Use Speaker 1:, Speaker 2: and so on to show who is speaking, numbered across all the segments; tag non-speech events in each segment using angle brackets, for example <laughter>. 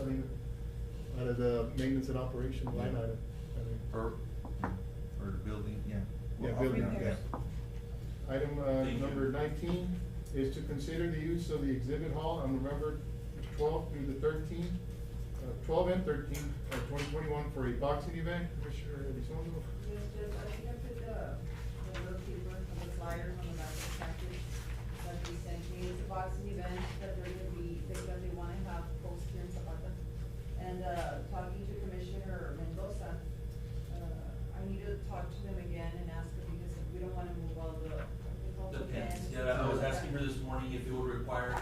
Speaker 1: I mean, out of the maintenance and operation line
Speaker 2: Yeah.
Speaker 1: item. I mean.
Speaker 2: Per, or building, yeah.
Speaker 1: Yeah,
Speaker 2: Well,
Speaker 1: building,
Speaker 2: yeah.
Speaker 1: yeah. Item uh,
Speaker 2: Thank you.
Speaker 1: number nineteen is to consider the use of the exhibit hall on November twelfth through the thirteenth, uh, twelve and thirteen of twenty twenty-one for a boxing event, Commissioner Elizondo.
Speaker 3: Mr. I think I put the, the bookkeeper from the flyer on the back of the package that we sent you. It's a boxing event that they're gonna be, because they wanna have folks here in Zapata. And, uh, talking to Commissioner Mendoza, uh, I need to talk to them again and ask them because we don't wanna move all the, all the
Speaker 4: Depends,
Speaker 3: pens.
Speaker 4: yeah, I was asking her this morning if it would require,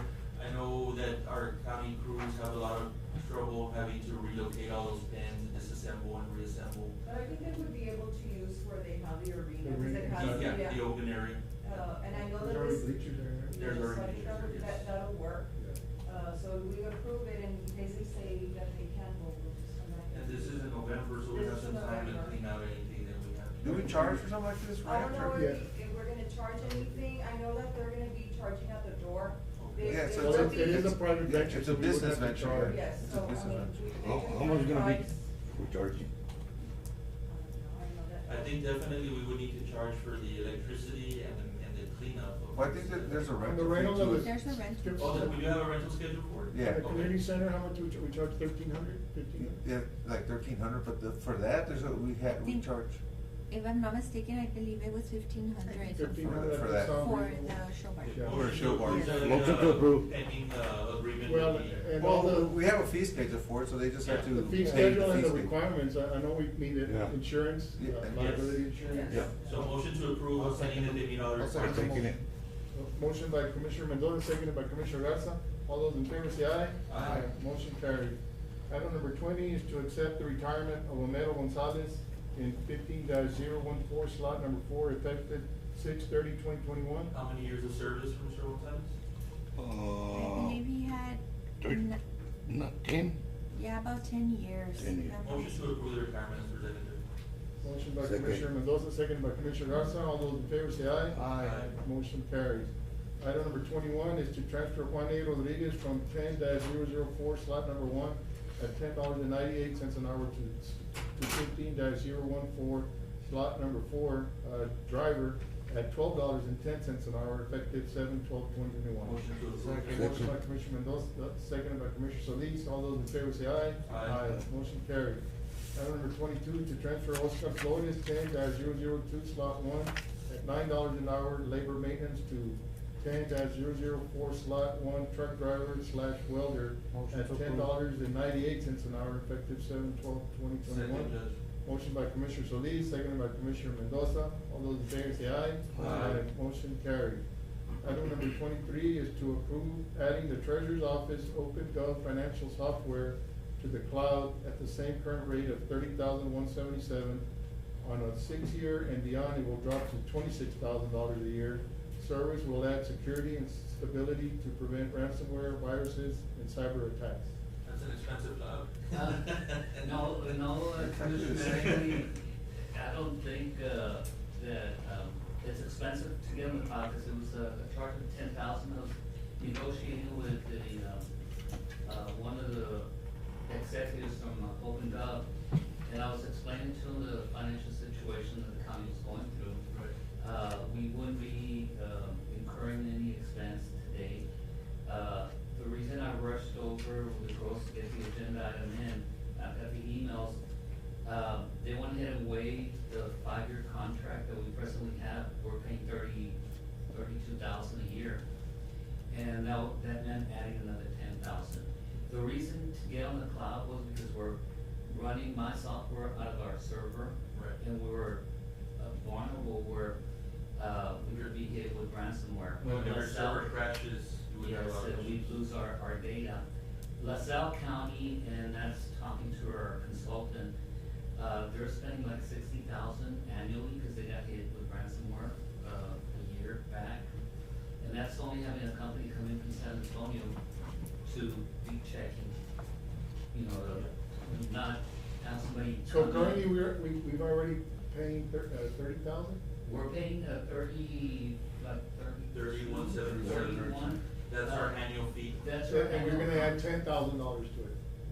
Speaker 4: I know that our county crews have a lot of trouble having to relocate all those pins and disassemble and reassemble.
Speaker 3: But I think they would be able to use where they have the arena, 'cause
Speaker 1: Arena.
Speaker 3: it has, yeah.
Speaker 4: Yeah, the open area.
Speaker 3: Uh, and I know that
Speaker 1: There's already
Speaker 3: this.
Speaker 1: bleachers there, right?
Speaker 3: Yeah,
Speaker 4: There's
Speaker 3: so I
Speaker 4: already
Speaker 3: think
Speaker 4: bleachers,
Speaker 3: that-
Speaker 4: yes.
Speaker 3: That'll work.
Speaker 1: Yeah.
Speaker 3: Uh, so we approve it and basically say that they can go with this one. right?
Speaker 4: And this is in November, so we
Speaker 3: This
Speaker 4: have
Speaker 3: is
Speaker 4: some time to
Speaker 3: November.
Speaker 4: clean out anything that we have. to
Speaker 2: Do we charge for something like this,
Speaker 3: I
Speaker 2: right?
Speaker 3: don't know
Speaker 1: after-
Speaker 3: if,
Speaker 1: Yeah.
Speaker 3: we- if we're gonna charge anything, I know that they're gonna be charging at the door. They-
Speaker 2: Yeah,
Speaker 3: they
Speaker 2: so
Speaker 3: will
Speaker 2: it's a-
Speaker 1: Well, it
Speaker 3: be-
Speaker 1: it is a private venture.
Speaker 2: It's
Speaker 1: so
Speaker 2: a
Speaker 1: we would
Speaker 2: business
Speaker 1: have to
Speaker 2: venture,
Speaker 1: charge.
Speaker 2: right?
Speaker 3: Yes,
Speaker 2: It's
Speaker 3: so, I
Speaker 2: a
Speaker 3: mean,
Speaker 2: business
Speaker 3: we,
Speaker 2: venture.
Speaker 3: they
Speaker 5: How,
Speaker 3: do
Speaker 5: how much
Speaker 3: have
Speaker 5: gonna be,
Speaker 3: price.
Speaker 5: we charging?
Speaker 3: I don't know, I know that-
Speaker 4: I think definitely we would need to charge for the electricity and, the- and the cleanup of.
Speaker 2: Well, I think that there's a
Speaker 1: On the
Speaker 2: rental fee
Speaker 1: right
Speaker 2: to
Speaker 1: of
Speaker 2: it.
Speaker 1: the.
Speaker 6: There's no rent.
Speaker 1: strip
Speaker 4: Oh, then we do
Speaker 1: club,
Speaker 4: have a rental schedule for it?
Speaker 1: at
Speaker 2: Yeah.
Speaker 1: The community
Speaker 4: Okay.
Speaker 1: center, how much we charge, we charge thirteen hundred, fifteen hundred?
Speaker 2: Yeah, like thirteen hundred, but the, for that, there's a, we had, we
Speaker 6: Think-
Speaker 2: charge.
Speaker 6: If I'm not mistaken, I believe it was fifteen hundred
Speaker 1: Fifteen
Speaker 6: for uh,
Speaker 1: hundred.
Speaker 2: for that.
Speaker 6: the show bar.
Speaker 1: Yeah.
Speaker 2: Or a show bar.
Speaker 4: Is that, uh,
Speaker 5: Motion to approve.
Speaker 4: Pending, uh, agreement
Speaker 1: Well,
Speaker 4: with the-
Speaker 1: and all
Speaker 2: Well,
Speaker 1: the.
Speaker 2: we have a fee schedule for it, so they just have
Speaker 4: Yeah.
Speaker 1: The
Speaker 2: to
Speaker 1: fee
Speaker 2: pay
Speaker 1: schedule
Speaker 2: the fee
Speaker 1: and the
Speaker 2: schedule.
Speaker 1: requirements, I, I know we need it,
Speaker 5: Yeah.
Speaker 1: insurance, uh,
Speaker 2: Yeah.
Speaker 1: liability insurance.
Speaker 3: Yes.
Speaker 4: So motion to approve,
Speaker 1: I'll
Speaker 4: I'm saying that
Speaker 1: second
Speaker 4: they
Speaker 1: it.
Speaker 4: meet all the
Speaker 2: I'll second
Speaker 4: requirements.
Speaker 5: Taking it.
Speaker 1: Motion by Commissioner Mendoza, seconded by Commissioner Garza. All those in favor say aye.
Speaker 4: Aye.
Speaker 1: Motion carried. Item number twenty is to accept the retirement of Omero Gonzalez in fifteen 14 slot number four, effective 6/30/2021.
Speaker 4: How many years of service from Mr. Gonzalez?
Speaker 6: I believe he had, n-
Speaker 5: Uh, Not ten?
Speaker 6: yeah, about ten years.
Speaker 5: 10 years.
Speaker 6: Um,
Speaker 4: Motion to approve the retirement as presented.
Speaker 1: Motion by
Speaker 5: Second.
Speaker 1: Commissioner Mendoza, seconded by Commissioner Garza. All those in favor say aye.
Speaker 4: Aye.
Speaker 1: Motion carries. Item number twenty-one is to transfer Juan A. Rodriguez from ten 4 slot number one at ten dollars and ninety-eight cents an hour to, to fifteen 14 slot number four, uh, driver at twelve dollars and ten cents an hour effective seven twelve twenty twenty-one.
Speaker 4: Motion to
Speaker 1: Motion
Speaker 4: approve.
Speaker 1: by
Speaker 5: Second.
Speaker 1: Commissioner Mendoza, seconded by Commissioner Solis, all those in favor say aye.
Speaker 4: Aye.
Speaker 1: Motion carried. Item number twenty-two, to transfer Oscar Flores, ten 2 slot one, at nine dollars an hour, labor maintenance to ten 4 slot one, truck driver slash welder,
Speaker 2: Motion to
Speaker 1: at ten
Speaker 2: approve.
Speaker 1: dollars and ninety-eight cents an hour, effective seven twelve twenty
Speaker 4: Second,
Speaker 1: twenty-one.
Speaker 4: Judge.
Speaker 1: Motion by Commissioner Solis, seconded by Commissioner Mendoza. All those in favor say aye.
Speaker 4: Aye.
Speaker 1: Motion carried. Item number twenty-three is to approve adding the treasurer's office OpenGov financial software to the cloud at the same current rate of thirty thousand one seventy-seven. On a six-year and beyond, it will drop to twenty-six thousand dollars a year. Service will add security and stability to prevent ransomware, viruses, and cyber attacks.
Speaker 4: That's an expensive job.
Speaker 7: Uh, <laughs> No, no, uh,
Speaker 4: <laughs>
Speaker 7: Commissioner, actually, I don't think, uh, that, um, it's expensive to get them, uh, cause it was a a charge of ten thousand of negotiating with the, um, uh, one of the executives from uh, Open Gov. And I was explaining to him the financial situation that the county is going through. Uh, we wouldn't be, um, incurring any expense today. Uh, the reason I rushed over with the girls to get the agenda item in, I've got the emails. Uh, they went ahead and waived the five-year contract that we presently have, we're paying thirty, thirty-two thousand a year. And now, that meant adding another ten thousand. The reason to get on the cloud was because we're running my software out of our server.
Speaker 4: Right.
Speaker 7: And we were uh, vulnerable where, uh, we could be hit with ransomware.
Speaker 4: When your
Speaker 7: Let's sell-
Speaker 4: server crashes, you would have a
Speaker 7: Yes,
Speaker 4: lot of
Speaker 7: and we
Speaker 4: issues.
Speaker 7: lose our, our data. LaSalle County, and that's talking to our consultant, uh, they're spending like sixty thousand annually because they got hit with ransomware, uh, a year back. And that's only having a company come in from San Antonio to be checking, you know, to not have somebody.
Speaker 1: So
Speaker 7: come in.
Speaker 1: currently, we're, we, we've already paying thir- uh, thirty thousand?
Speaker 7: We're paying a thirty, like thirty.
Speaker 4: Thirty-one seventy-seven.
Speaker 7: Thirty-one. Uh,
Speaker 4: That's our annual fee.
Speaker 7: That's our
Speaker 1: And we're gonna
Speaker 7: annual-
Speaker 1: add ten thousand dollars to it.